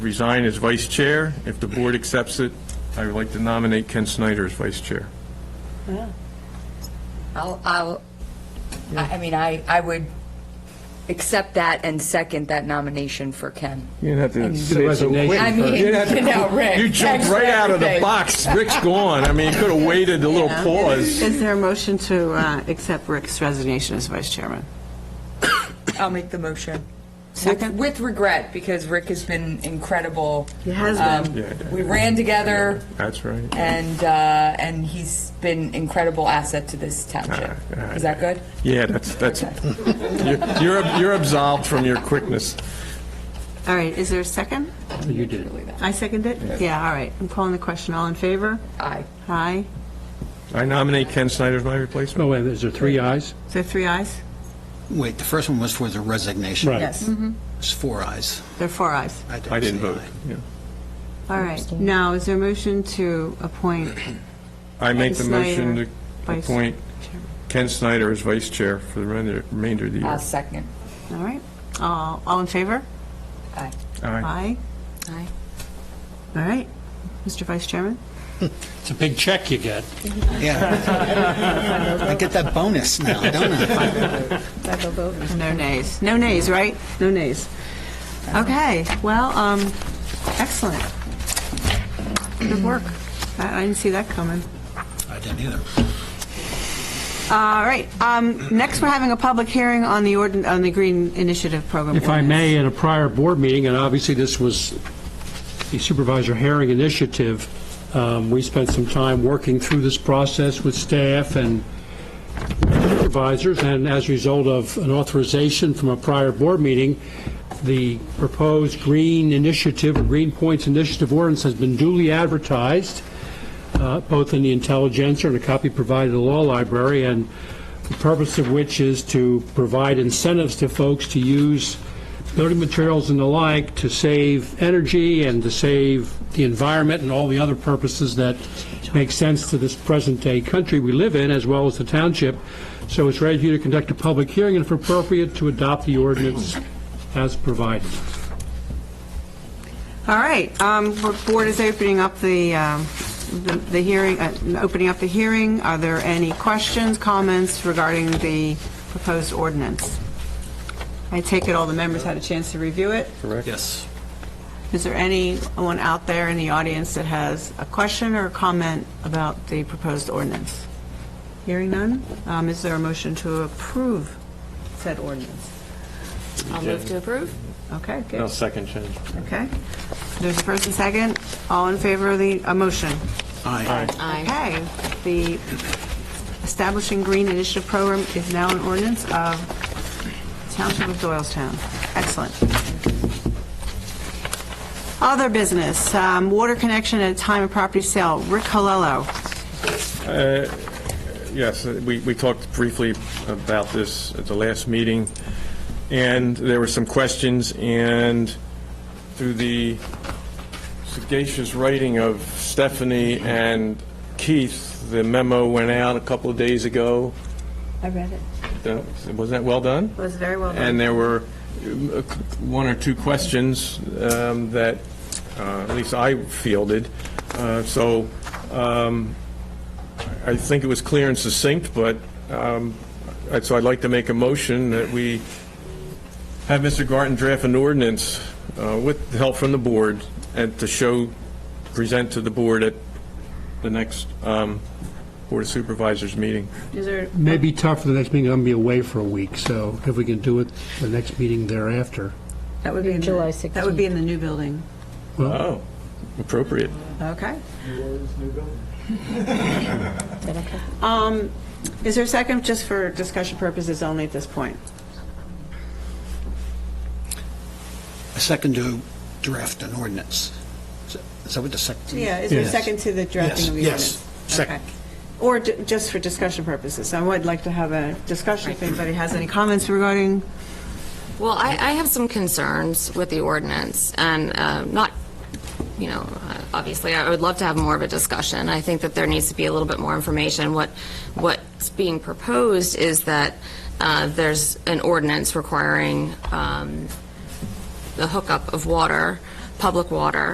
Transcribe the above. resign as vice chair. If the board accepts it, I would like to nominate Ken Snyder as vice chair. I'll, I'll, I I mean, I, I would accept that and second that nomination for Ken. You didn't have to say it so quick. I mean, You didn't have to- you know, Rick, You jumped thanks for right out of the everything. box. Rick's gone. I mean, you could have waited a little pause. Is there a motion to uh, accept Rick's resignation as vice chairman? I'll make the motion. Second. With regret, because Rick has been incredible. He has been. Um, Yeah, yeah. We ran together, That's right. and, uh, and he's been incredible asset to this township. All right, all Is that good? Yeah, that's, that's, you're- you're you're absolved from your quickness. All right, is there a second? You did. I second it? Yeah, all right. I'm calling the question. All in favor? Mm. Aye. Aye. I nominate Ken Snyder as my replacement. Oh, wait, is there three ayes? Is there three ayes? Wait, the first one was for the resignation. Right. Yes. It's four ayes. Mm-hmm. There are four ayes. I didn't vote. yeah. All right. Now, is there a motion to appoint I make the Ken motion Snyder, to vice appoint chairman? Ken Snyder as vice chair for the remainder remainder of the I'll year. second. All right. Uh, All in favor? Aye. Aye. Aye. Aye. All right. Mr. Vice Chairman? It's a big check you get. Yeah. I get that bonus now, don't I? No nays. No nays, right? No nays. Okay, well, um, excellent. Good work. I I didn't see that coming. I didn't either. All right, um, next, we're having a public hearing on the ordin, on the Green Initiative Program. If I ordinance. may, in a prior board meeting, and obviously this was the Supervisor Herring initiative, um, we spent some time working through this process with staff and supervisors, and as a result of an authorization from a prior board meeting, the proposed Green Initiative, or Green Points Initiative ordinance has been duly advertised, uh, both in the Intelligencer and a copy provided to the law library, and the purpose of which is to provide incentives to folks to use building materials and the like to save energy and to save the environment and all the other purposes that make sense to this present-day country we live in, as well as the township. So it's ready for you to conduct a public hearing and if appropriate, to adopt the ordinance as provided. All right, um, the board is opening up the, um, the the hearing, uh, opening up the hearing. Are there any questions, comments regarding the proposed ordinance? I take it all the members had a chance to review it? Yes. Is there anyone out there in the audience that has a question or a comment about the proposed ordinance? Hearing none, um, is there a motion to approve said ordinance? I'll move to approve. Okay, I'll good, second Ken. okay. There's a first and second, all in favor of the, a motion? Aye. Aye. Okay, the Establishing Green Initiative Program is now an ordinance of Township of Doylestown. Excellent. Other business, um, water connection at time of property sale, Rick Colello. Yes, uh, we, we talked briefly about this at the last meeting, and there were some questions, and through the sagacious writing of Stephanie and Keith, the memo went out a couple of days ago. I read it. That- Was that well done? It was very well And done. there were um, uh, one or two questions um, that uh, at least I fielded. Uh, So um, I think it was clear and succinct, but, um, I- so I'd like to make a motion that we have Mr. Garten draft an ordinance uh, with help from the board and to show, present to the board at the next um, Board of Supervisors meeting. Is there, May be tough for the next meeting, I'm going to be away for a week, so if we can do it the next meeting thereafter. that would be in July the, that would be in the new building. Well, Oh, appropriate. Okay. Um, Is there a second, just for discussion purposes only at this point? A second to draft an ordinance. Is that- Is that what the second? Yeah, is there a Yes. second to the drafting of the Yes, ordinance? yes, second. Okay. Or ju- just for discussion purposes, I would like to have a discussion if anybody has any comments regarding, Well, I, I have some concerns with the ordinance, and uh, not, you know, uh, obviously, I would love to have more of a discussion. I think that there needs to be a little bit more information. What, what's being proposed is that uh, there's an ordinance requiring um, the hookup of water public water